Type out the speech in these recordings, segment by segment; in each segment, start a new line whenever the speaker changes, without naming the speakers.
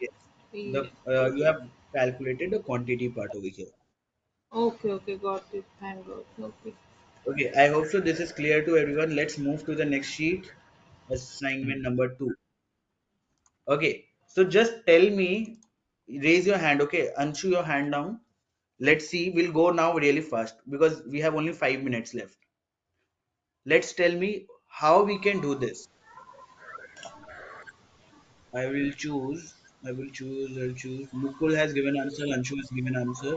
the
We
uh, you have calculated the quantity part over here
okay, okay, got it. Thank God. Okay.
okay i hope so this is clear to everyone let's move to the next sheet assignment number 2 okay so just tell me raise your hand okay anshu your hand down let's see we'll go now really fast because we have only 5 minutes left let's tell me how we can do this i will choose i will choose i'll choose mukul has given answer anshu has given answer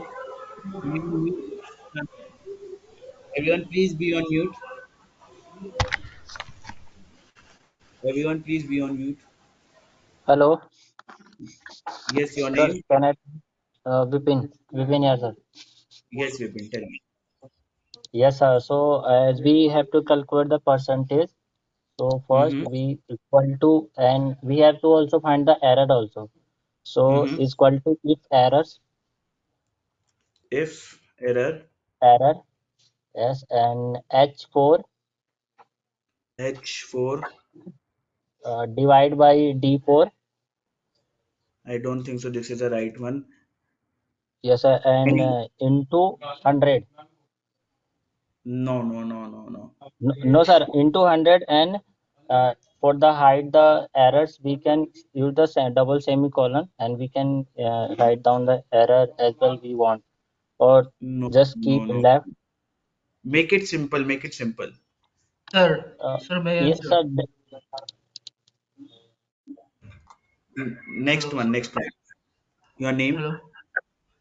Be on mute. everyone please be on mute everyone please be on mute
Hello,
yes your
sir.
name
Can I? Uh, Vipin, Vipin here, sir.
yes vipin tell me
Yes, sir. So as we have to calculate the percentage, so first
mm-hmm.
we equal to, and we have to also find the error also. So
Mm-hmm.
is equal to if errors,
if error
error, yes, and H4
h4
uh, divide by D4,
I don't think so. This is the right one.
yes, sir, and
Any?
uh, into 100.
No, no, no, no, no.
No, no, sir, into 100 and uh, for the hide the errors, we can use the se- double semicolon and we can uh, write down the error as well we want or
No,
just
no,
keep
no.
left.
Make it simple. Make it simple.
Sir,
Uh,
sir, may I
yes,
answer?
sir. th-
N- Next
Hello,
one. Next one. Your name?
hello,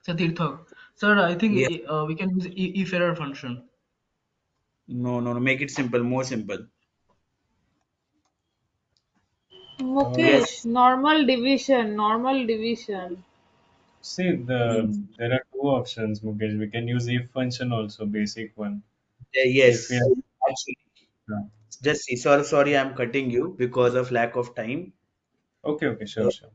sir Tirthak. Sir, I think
Yeah.
i- uh, we can use i- if error function.
No, no, no. Make it simple. More simple.
Uh,
Yes.
Mukesh, normal division, normal division.
See, the there are two options, Mukesh. We can use if function also, basic one.
Eh,
If we
yes.
have,
Actually,
yeah.
just see. Sorry, sorry. I'm cutting you because of lack of time.
Okay, okay, sure,
Eh,
sure.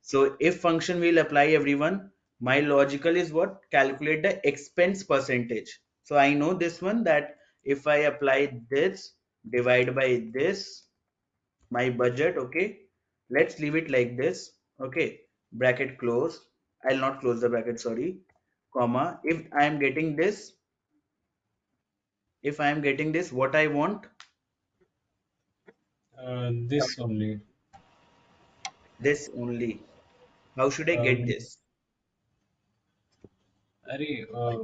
So if function will apply everyone, my logical is what? Calculate the expense percentage. So I know this one that if I apply this, divide by this, my budget, okay? Let's leave it like this, okay? Bracket close. I'll not close the bracket, sorry. Comma. If I am getting this, if I am getting this, what I want,
Uh, this only.
this only. How should I get
Um,
this?
Arey, uh,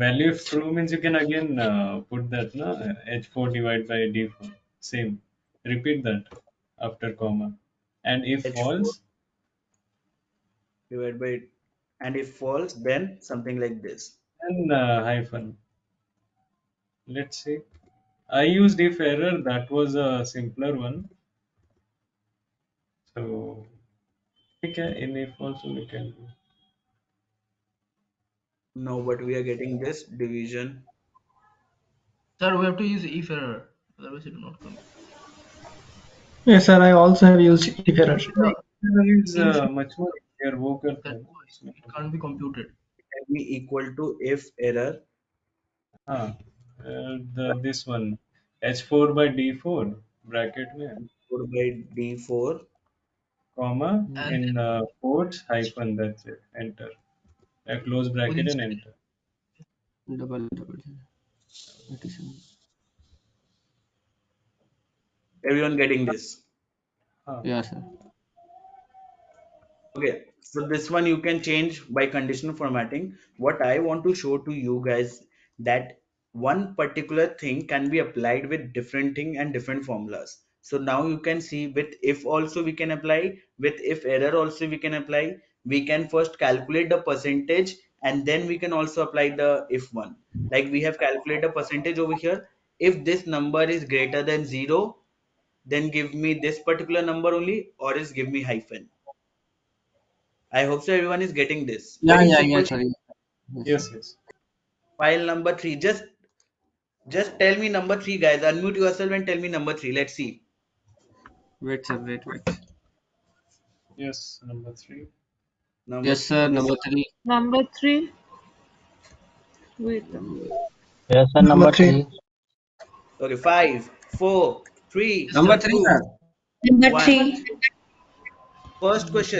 value of true means you can again uh, put that na h4 divided by d4 same repeat that after comma and if
H4
false
divided by, and if false, then something like this.
then uh, hyphen let's see I used if error that was a simpler one so we can in if also we can
No, but we are getting this division.
Sir, we have to use if error, otherwise it will not come.
Yes, sir. I also have used if error.
Yeah,
error is
since
uh, much more easier worker
that
for
voice,
so,
it can't be computed.
Can be equal to if error.
ah, uh, the this one h4 by d4 bracket में
4 by d4
comma
And
in
then
uh, quotes hyphen that's it enter a close bracket
within
and
space,
enter
Double, double. That is
everyone getting this
huh.
yeah, sir.
okay so this one you can change by conditional formatting what i want to show to you guys that one particular thing can be applied with different thing and different formulas so now you can see with if also we can apply with if error also we can apply we can first calculate the percentage and then we can also apply the if one like we have calculated a percentage over here if this number is greater than zero then give me this particular number only or is give me hyphen I hope so everyone is getting this.
Yeah,
Very
yeah, yeah,
simple
sir.
thing.
Yes, sir.
yes yes
File number three. Just just tell me number three, guys. Unmute yourself and tell me number three. Let's see.
Wait, sir. Wait, wait.
yes number three
Number
Yes,
three
sir.
is
Number three.
Number three. Wait a minute.
yes, sir.
Number
Number
three.
three.
okay. Five, four, three,
yes, sir.
Number three,
two,
sir.
Number
one.
three.
First question.